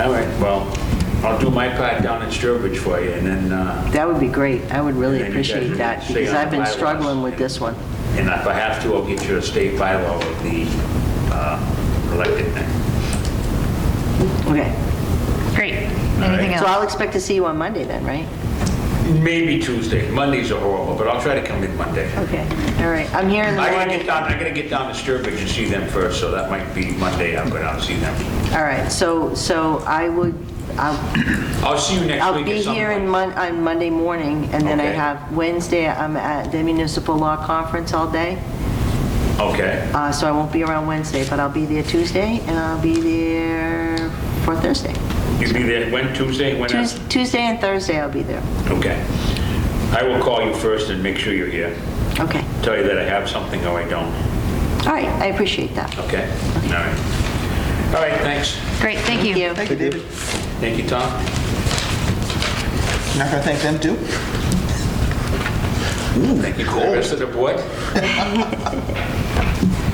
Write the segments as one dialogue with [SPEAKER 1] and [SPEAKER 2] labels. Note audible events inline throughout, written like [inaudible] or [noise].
[SPEAKER 1] All right, well, I'll do my part down at Sturbridge for you, and then, uh,
[SPEAKER 2] That would be great. I would really
[SPEAKER 1] And then you guys
[SPEAKER 2] appreciate
[SPEAKER 1] would
[SPEAKER 2] that
[SPEAKER 1] stay
[SPEAKER 2] because
[SPEAKER 1] on
[SPEAKER 2] I've
[SPEAKER 1] the
[SPEAKER 2] been
[SPEAKER 1] bylaws.
[SPEAKER 2] struggling with this one.
[SPEAKER 1] and if I have to, I'll get you a state bylaw of the uh, elected thing.
[SPEAKER 2] Okay.
[SPEAKER 3] Great. Anything
[SPEAKER 2] So
[SPEAKER 3] else?
[SPEAKER 2] I'll expect to see you on Monday then, right?
[SPEAKER 1] Maybe Tuesday, Mondays are horrible, but I'll try to come in Monday.
[SPEAKER 2] Okay, all right. I'm here in the
[SPEAKER 1] I gotta
[SPEAKER 2] morning.
[SPEAKER 1] get down, I gotta get down to Sturbridge and see them first, so that might be Monday, I'll go down and see them.
[SPEAKER 2] All right, so, so I would, I'll,
[SPEAKER 1] I'll see you next
[SPEAKER 2] I'll
[SPEAKER 1] week
[SPEAKER 2] be
[SPEAKER 1] at some
[SPEAKER 2] here in
[SPEAKER 1] point.
[SPEAKER 2] Mon, on Monday morning and then I
[SPEAKER 1] Okay.
[SPEAKER 2] have Wednesday, I'm at the municipal law conference all day.
[SPEAKER 1] Okay,
[SPEAKER 2] Uh, so I won't be around Wednesday, but I'll be there Tuesday and I'll be there for Thursday.
[SPEAKER 1] you'll be there, when, Tuesday, when? else?
[SPEAKER 2] Tues- Tuesday and Thursday I'll be there.
[SPEAKER 1] Okay. I will call you first and make sure you're here.
[SPEAKER 2] Okay,
[SPEAKER 1] Tell you that I have something or I don't,
[SPEAKER 2] all right, I appreciate that.
[SPEAKER 1] okay? All right. All right, thanks.
[SPEAKER 3] Great, thank you.
[SPEAKER 2] you.
[SPEAKER 4] Thank you, David.
[SPEAKER 1] Thank you, Tom.
[SPEAKER 4] Not gonna thank them too?
[SPEAKER 1] Thank you, Cole. Rest of the board. [laughs]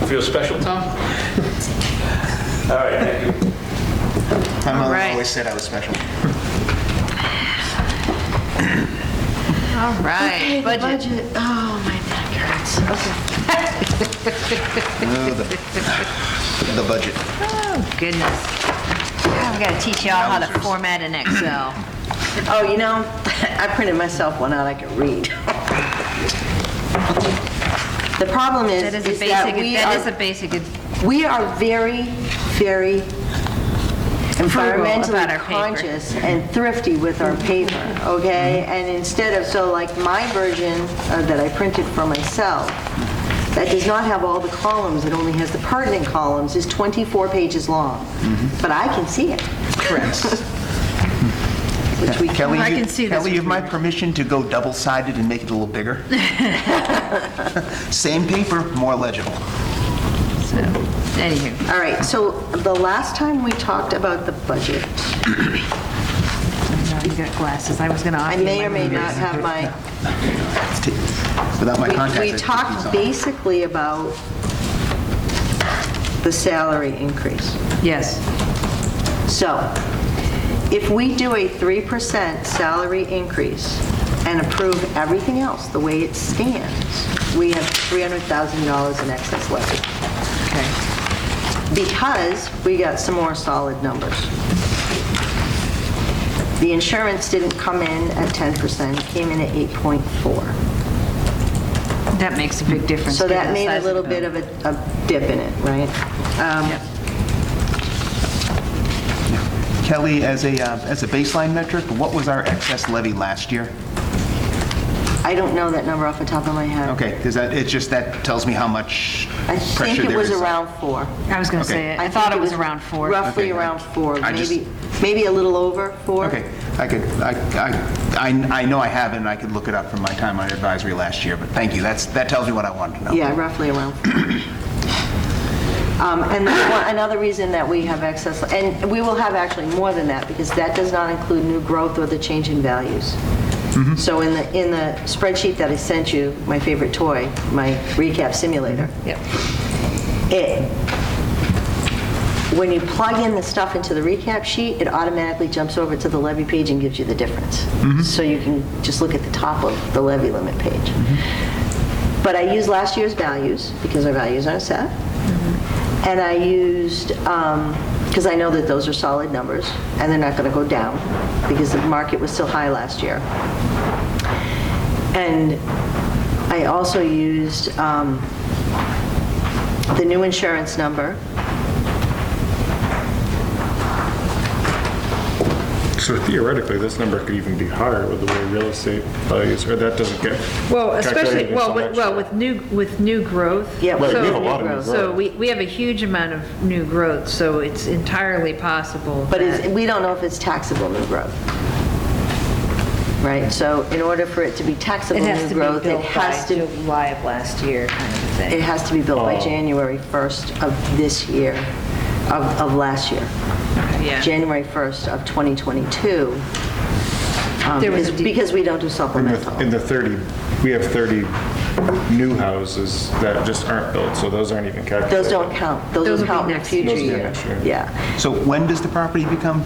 [SPEAKER 1] Feel special, Tom? All right, thank you.
[SPEAKER 4] My mother
[SPEAKER 3] right.
[SPEAKER 4] always said I was [laughs] special.
[SPEAKER 3] All right, budget.
[SPEAKER 2] oh, my neck hurts. Okay.
[SPEAKER 4] The budget.
[SPEAKER 3] Oh, goodness. I've got to teach y'all how to format an Excel.
[SPEAKER 2] Oh, you know, [laughs] I printed myself one out I could read. The problem is,
[SPEAKER 3] That is a
[SPEAKER 2] is that
[SPEAKER 3] basic,
[SPEAKER 2] we
[SPEAKER 3] that is a
[SPEAKER 2] are,
[SPEAKER 3] basic,
[SPEAKER 2] we are very, very
[SPEAKER 3] about
[SPEAKER 2] environmentally
[SPEAKER 3] our paper.
[SPEAKER 2] conscious and thrifty with our paper, okay?
[SPEAKER 3] Mm-hmm.
[SPEAKER 2] And instead of, so like my version uh, that I printed for myself, that does not have all the columns, it only has the pertinent columns, is 24 pages long.
[SPEAKER 3] Mm-hmm.
[SPEAKER 2] But I can see it,
[SPEAKER 4] Correct.
[SPEAKER 2] [laughs] which we
[SPEAKER 4] Kelly,
[SPEAKER 3] I
[SPEAKER 4] you-
[SPEAKER 3] can see this
[SPEAKER 4] Kelly, you have my permission to go double-sided and make it a
[SPEAKER 3] [laughs]
[SPEAKER 4] little bigger? Same paper, more legible.
[SPEAKER 3] so, anywho.
[SPEAKER 2] All right, so the last time we talked about the budget,
[SPEAKER 3] No, You got glasses, I was going to
[SPEAKER 2] I
[SPEAKER 3] offer you
[SPEAKER 2] may
[SPEAKER 3] my
[SPEAKER 2] or may not
[SPEAKER 3] readers.
[SPEAKER 2] have my,
[SPEAKER 4] Without my contacts.
[SPEAKER 2] we
[SPEAKER 4] I
[SPEAKER 2] talked
[SPEAKER 4] think he's on.
[SPEAKER 2] basically about the salary increase.
[SPEAKER 3] Yes,
[SPEAKER 2] So if we do a 3% salary increase and approve everything else the way it stands, we have $300,000 in excess levy
[SPEAKER 3] okay.
[SPEAKER 2] because we got some more solid numbers. The insurance didn't come in at 10%, came in at 8.4.
[SPEAKER 3] That makes a big difference.
[SPEAKER 2] So
[SPEAKER 3] given
[SPEAKER 2] that
[SPEAKER 3] the
[SPEAKER 2] made
[SPEAKER 3] size
[SPEAKER 2] a little
[SPEAKER 3] the
[SPEAKER 2] bit
[SPEAKER 3] bill.
[SPEAKER 2] of a a dip in it, right? Um,
[SPEAKER 3] Yep.
[SPEAKER 4] Kelly, as a, uh, as a baseline metric, what was our excess levy last year?
[SPEAKER 2] I don't know that number off the top of my head.
[SPEAKER 4] Okay, because that, it's just, that tells me how much
[SPEAKER 2] I
[SPEAKER 4] pressure
[SPEAKER 2] think it
[SPEAKER 4] there is.
[SPEAKER 2] was around four.
[SPEAKER 3] I was going to
[SPEAKER 4] Okay.
[SPEAKER 3] say, it. I thought
[SPEAKER 2] think
[SPEAKER 3] it was around four.
[SPEAKER 2] Roughly
[SPEAKER 4] Okay, I-
[SPEAKER 2] around four,
[SPEAKER 4] I just-
[SPEAKER 2] maybe, maybe a little over four.
[SPEAKER 4] Okay, I could, I, I, I I know I have it, and I could look it up from my time on advisory last year, but thank you, that's, that tells me what I wanted to know.
[SPEAKER 2] Yeah, roughly around. [clears throat] four. Um, And that's one- another reason that we have excess, and we will have actually more than that, because that does not include new growth or the change in values. So in the, in the spreadsheet that I sent you, my favorite toy, my recap simulator,
[SPEAKER 3] Yep.
[SPEAKER 2] it, when you plug in the stuff into the recap sheet, it automatically jumps over to the levy page and gives you the difference. So you can just look at the top of the levy limit page. But I used last year's values, because our values aren't set. And I used, because I know that those are solid numbers, and they're not going to go down, because the market was still high last year. And I also used um, the new insurance number,
[SPEAKER 5] So theoretically, this number could even be higher with the way real estate values, or that doesn't get.
[SPEAKER 6] Well, especially,
[SPEAKER 5] calculated
[SPEAKER 6] well,
[SPEAKER 5] until
[SPEAKER 6] with,
[SPEAKER 5] next
[SPEAKER 6] well,
[SPEAKER 5] year.
[SPEAKER 6] with new, with new growth.
[SPEAKER 2] Yeah, Right,
[SPEAKER 5] we have a
[SPEAKER 6] so-
[SPEAKER 5] lot of new
[SPEAKER 6] So
[SPEAKER 5] growth.
[SPEAKER 6] we, we have a huge amount of new growth, so it's entirely possible
[SPEAKER 2] But
[SPEAKER 6] that-
[SPEAKER 2] it's, we don't know if it's taxable new growth. Right, so in order for it to be taxable
[SPEAKER 3] It
[SPEAKER 2] new
[SPEAKER 3] has to be
[SPEAKER 2] growth, it
[SPEAKER 3] built
[SPEAKER 2] has
[SPEAKER 3] by
[SPEAKER 2] to,
[SPEAKER 3] July of last year, kind of a thing.
[SPEAKER 2] it has to be built by January 1st of this year, of, of last year.
[SPEAKER 6] yeah.
[SPEAKER 2] January 1st of 2022. um,
[SPEAKER 6] There was a
[SPEAKER 2] because-
[SPEAKER 6] de-
[SPEAKER 2] Because we don't do
[SPEAKER 5] In the- In
[SPEAKER 2] supplemental.
[SPEAKER 5] the 30, we have 30 new houses that just aren't built, so those aren't even calculated.
[SPEAKER 2] Those don't count.
[SPEAKER 6] Those
[SPEAKER 2] Those will
[SPEAKER 6] will be
[SPEAKER 2] count in the
[SPEAKER 6] next year.
[SPEAKER 2] future
[SPEAKER 5] Those will be
[SPEAKER 2] year.
[SPEAKER 5] next year.
[SPEAKER 2] Yeah.
[SPEAKER 4] So when does the property become